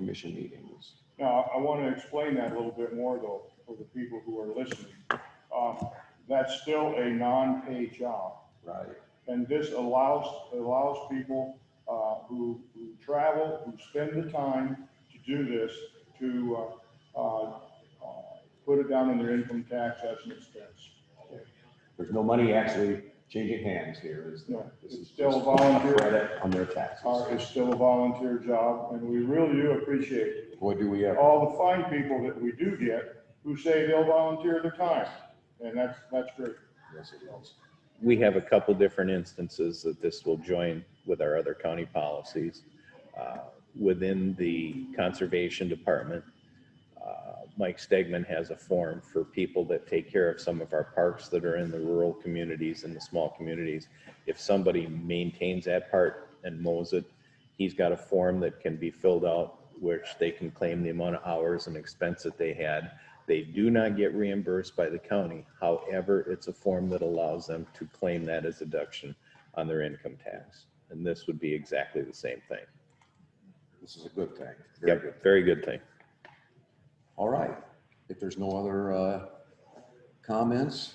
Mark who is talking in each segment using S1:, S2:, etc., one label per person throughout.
S1: commission meetings.
S2: Now, I want to explain that a little bit more though, for the people who are listening. Um, That's still a non-paid job.
S1: Right.
S2: And this allows, allows people uh, who, who travel, who spend the time to do this, to uh, uh, uh, put it down in their income tax as an expense.
S1: There's no money actually changing hands here, is there?
S2: No,
S1: This is
S2: it's still
S1: just
S2: volunteer.
S1: Credit on their taxes.
S2: Uh, It's still a volunteer job, and we really do appreciate
S1: Boy, do we ever.
S2: all the fine people that we do get who say they'll volunteer their time, and that's, that's great.
S1: Yes, it is.
S3: we have a couple different instances that this will join with our other county policies. Uh, Within the Conservation Department, uh, Mike Stegman has a form for people that take care of some of our parks that are in the rural communities and the small communities. If somebody maintains that part and mows it, he's got a form that can be filled out, which they can claim the amount of hours and expense that they had. They do not get reimbursed by the county. However, it's a form that allows them to claim that as deduction on their income tax. And this would be exactly the same thing.
S1: This is a good thing. Very good.
S3: Yep, very good thing.
S1: All right. If there's no other uh, comments,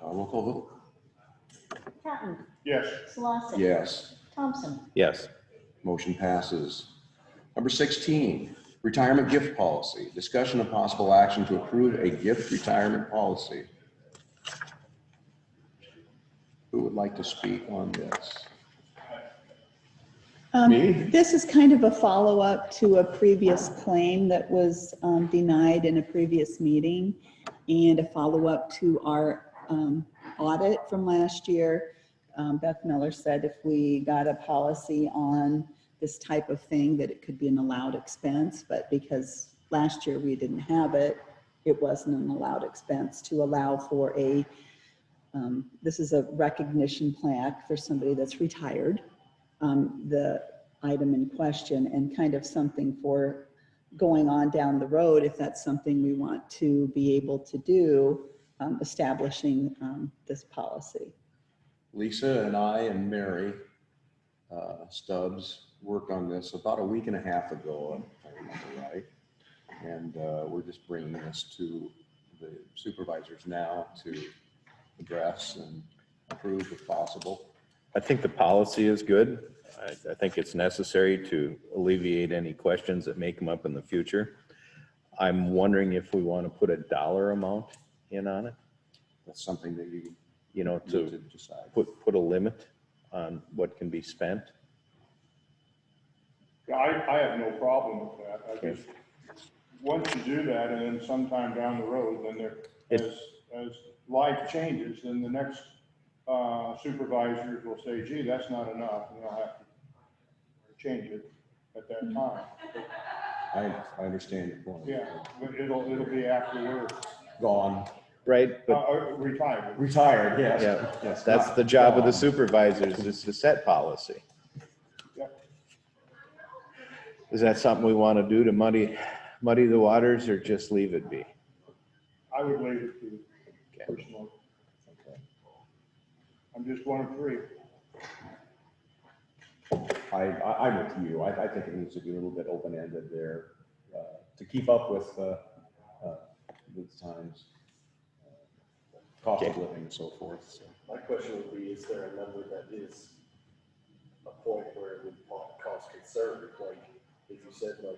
S1: uh, roll call vote.
S4: Patton,
S2: Yes,
S4: Slosson.
S1: Yes,
S4: Thompson,
S3: Yes,
S1: motion passes. Number 16, retirement gift policy. Discussion of possible action to approve a gift retirement policy. Who would like to speak on this?
S5: Um,
S1: Me?
S5: This is kind of a follow-up to a previous claim that was um, denied in a previous meeting and a follow-up to our um, audit from last year. Um, Beth Miller said if we got a policy on this type of thing, that it could be an allowed expense, but because last year we didn't have it, it wasn't an allowed expense to allow for a, um, this is a recognition plaque for somebody that's retired um, the item in question and kind of something for going on down the road, if that's something we want to be able to do, um, establishing um, this policy.
S1: Lisa and I and Mary uh, Stubbs worked on this about a week and a half ago, if I remember right. And uh, we're just bringing this to the supervisors now to address and approve if possible.
S3: I think the policy is good. I, I think it's necessary to alleviate any questions that may come up in the future. I'm wondering if we want to put a dollar amount in on it,
S1: That's something that you
S3: you know,
S1: need
S3: to
S1: to decide.
S3: put, put a limit on what can be spent.
S2: Yeah, I, I have no problem with that. I just, once you do that, and then sometime down the road, then there, as, as life changes, then the next uh, supervisors will say, gee, that's not enough, and they'll have to change it at that time.
S1: I, I understand your point.
S2: Yeah, but it'll, it'll be after we're
S1: Gone,
S3: Right,
S2: uh,
S3: but
S2: uh, retired.
S1: retired, yes.
S3: Yeah,
S1: Yes,
S3: That's
S1: not
S3: the job of the
S1: gone.
S3: supervisors, is to set policy.
S2: Yep.
S3: Is that something we want to do to muddy, muddy the waters or just leave it be?
S2: I would leave it to personal. I'm just one of three.
S1: I, I, I'm with you. I, I think it needs to be a little bit open-ended there, uh, to keep up with, uh, uh, with times. uh, Cost of living and so forth, so.
S6: My question would be, is there a number that is a point where it would pa- cause concern, like, if you said like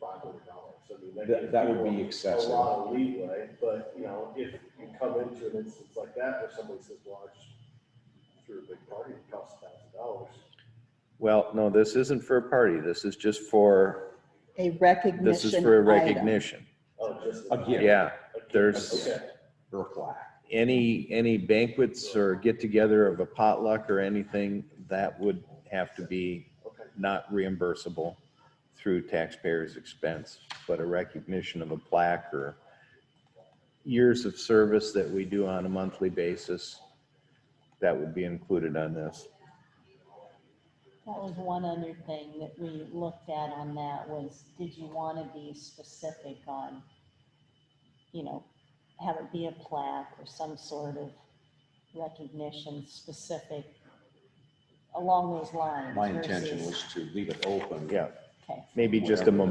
S6: five hundred dollars, I mean.
S1: That-
S6: gives
S1: that would be
S6: people
S1: excessive.
S6: A lot of leeway, but, you know, if you come into an instance like that, where somebody says, well, I just threw a big party, it costs a thousand dollars.
S3: Well, no, this isn't for a party. This is just for,
S5: A recognition.
S3: this is for a
S5: item.
S3: recognition.
S6: Oh, just.
S1: A gift.
S3: Yeah,
S6: Okay.
S3: there's-
S6: Okay.
S1: Or a plaque.
S3: any, any banquets or get together of a potluck or anything, that would have to be
S6: Okay.
S3: not reimbursable through taxpayers' expense, but a recognition of a plaque or years of service that we do on a monthly basis, that would be included on this.
S4: that was one other thing that we looked at on that was, did you want to be specific on, you know, have it be a plaque or some sort of recognition specific along those lines?
S1: My intention
S4: versus-
S1: was to leave it open.
S3: Yeah,
S4: Okay.
S3: maybe just a
S1: Whatever.